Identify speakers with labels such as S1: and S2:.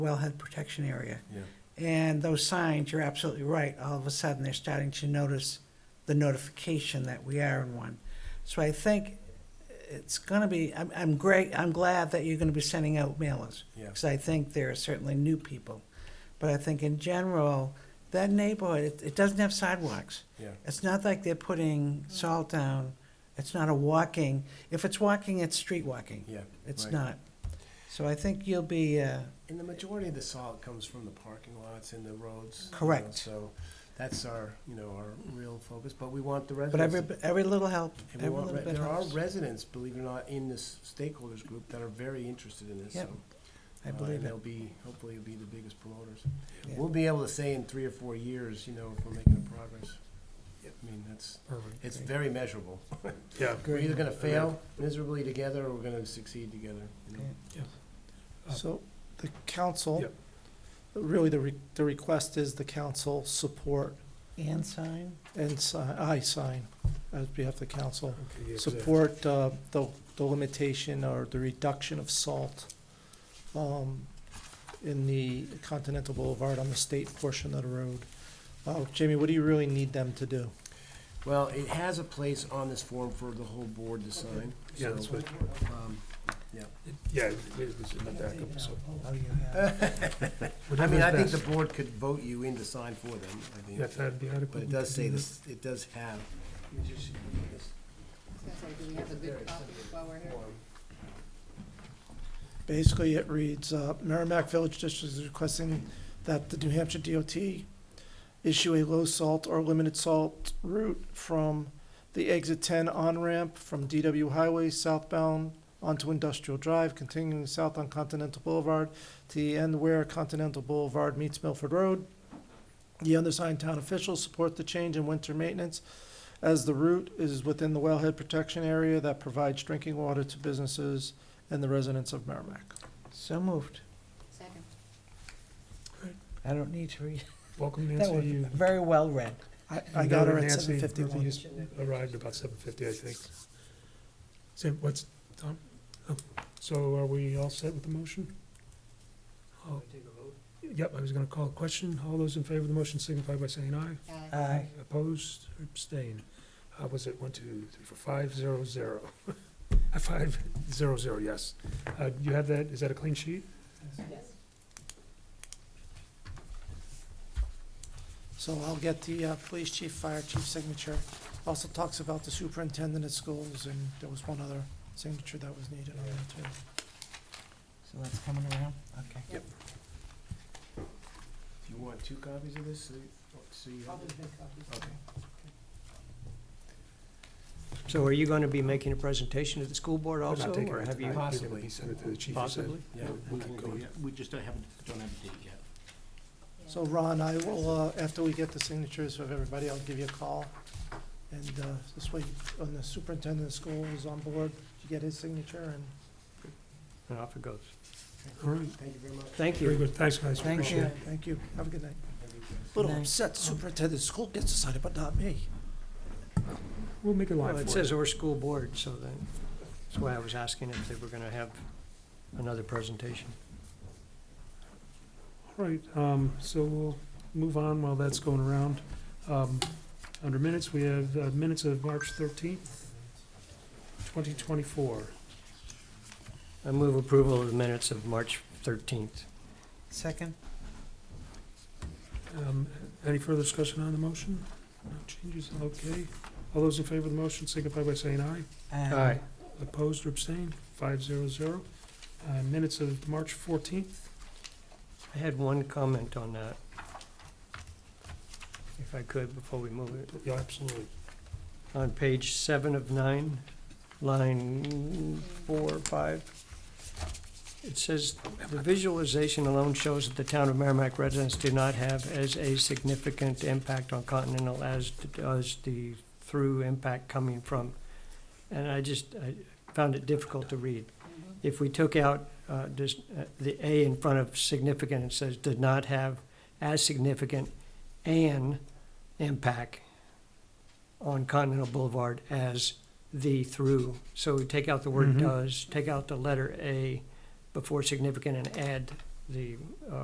S1: wellhead protection area.
S2: Yeah.
S1: And those signs, you're absolutely right, all of a sudden, they're starting to notice the notification that we are in one. So I think it's gonna be, I'm, I'm great, I'm glad that you're gonna be sending out mailers.
S2: Yeah.
S1: Because I think there are certainly new people. But I think in general, that neighborhood, it, it doesn't have sidewalks.
S2: Yeah.
S1: It's not like they're putting salt down, it's not a walking, if it's walking, it's street walking.
S2: Yeah,
S1: It's
S2: right.
S1: not. So I think you'll be, uh,
S2: And the majority of the salt comes from the parking lots and the roads. you know,
S1: Correct.
S2: So that's our, you know, our real focus, but we want the residents.
S1: but every, every little help,
S2: and we
S1: every
S2: want
S1: little
S2: re-
S1: bit
S2: There are
S1: helps.
S2: residents, believe it or not, in this stakeholders group that are very interested in this, so.
S1: Yep, I
S2: uh,
S1: believe
S2: And
S1: it.
S2: they'll be, hopefully, will be the biggest promoters.
S1: Yeah.
S2: We'll be able to say in three or four years, you know, if we're making progress. I mean, that's, it's very measurable.
S3: Yeah.
S2: We're either gonna
S3: Yeah.
S2: fail miserably together, or we're gonna succeed together, you know?
S1: Yeah.
S4: So the council,
S3: Yep.
S4: really, the, re- the request is the council support
S1: And sign?
S4: and si- I sign, as behalf of the council,
S3: Okay, yeah, 'cause I-
S4: support uh, the, the limitation or the reduction of salt um, in the Continental Boulevard on the state portion of the road. Uh, Jamie, what do you really need them to do?
S2: Well, it has a place on this form for the whole board to sign.
S3: Yeah,
S2: so,
S3: that's what,
S2: um,
S3: yeah, it is, it's in the backup, so.
S2: I mean, I think
S3: Whatever's
S2: the
S3: best.
S2: board could vote you in to sign for them, I
S3: Yeah,
S2: think.
S3: if that'd be adequate.
S2: But it
S3: we
S2: does
S3: could
S2: say
S3: do
S2: this, it does have.
S5: Sounds like, do we have a good copy while we're here?
S4: Basically, it reads, uh, Merrimack Village District is requesting that the New Hampshire DOT issue a low salt or limited salt route from the exit ten on-ramp from DW Highway southbound onto Industrial Drive, continuing south on Continental Boulevard to the end where Continental Boulevard meets Milford Road. The undersigned town officials support the change in winter maintenance as the route is within the wellhead protection area that provides drinking water to businesses and the residents of Merrimack.
S1: So moved.
S5: Second.
S1: I don't need to read.
S3: Welcome
S1: That
S3: Nancy,
S1: was
S3: you.
S1: very well read.
S4: I,
S3: you
S4: I got her at
S3: Nancy,
S4: seven
S3: Murphy
S4: fifty-one.
S3: just Arrived about seven fifty, I think. Sam, what's, Tom? Oh, So are we all set with the motion? Oh. Yep, I was gonna call a question. All those in favor of the motion signify by saying aye.
S5: Aye.
S1: Aye.
S3: Opposed or abstained? Uh, was it one, two, three, four, five, zero, zero? Uh, Five, zero, zero, yes. Uh, you have that, is that a clean sheet?
S5: Yes.
S4: So I'll get the uh, police chief, fire chief signature. Also talks about the superintendent of schools, and there was one other signature that was needed on that too.
S1: So that's coming around? Okay.
S2: Do you want two copies of this? so you- So you have it? Okay.
S6: So are you going to be making a presentation to the school board
S3: We're not
S6: also,
S3: taking
S6: or
S3: it
S6: have
S3: tonight.
S6: you
S3: You're gonna
S2: Possibly.
S3: be sending it to the chief, you said.
S6: possibly?
S2: Yeah.
S3: we keep going.
S7: We just don't have, don't have a date yet.
S4: So Ron, I will, uh, after we get the signatures of everybody, I'll give you a call. And uh, this way, when the superintendent of schools is on board, you get his signature and
S6: And off it goes.
S3: All right,
S2: Thank you very much.
S6: Thank
S3: very
S6: you.
S3: good, thanks, guys,
S1: Thank
S3: appreciate
S1: you.
S3: it.
S4: thank you. Have a good night.
S2: Thank you.
S4: Little
S1: Night.
S4: upset superintendent of school gets decided, but not me.
S3: We'll make a line
S6: Well,
S3: for it.
S6: it says or school board, so then, that's why I was asking if they were going to have another presentation.
S3: All right, um, so we'll move on while that's going around. Um, under minutes, we have uh, minutes of March thirteenth, twenty twenty-four.
S6: I move approval of the minutes of March 13th.
S1: Second?
S3: Um, any further discussion on the motion? No changes, okay. All those in favor of the motion signify by saying aye.
S1: Aye.
S3: Opposed or abstained, five zero zero. Uh, minutes of March fourteenth,
S6: I had one comment on that, if I could, before we move it.
S3: yeah, absolutely.
S6: On page seven of nine, line four, or five, it says, "The visualization alone shows that the town of Merrimack residents do not have as a significant impact on Continental as does the through impact coming from." And I just, I found it difficult to read. If we took out, uh, just, uh, the A in front of significant, it says, "Did not have as significant an impact on Continental Boulevard as the through. So we take out the word uh,
S3: Mhm.
S6: does, take out the letter A before significant and add
S1: the uh,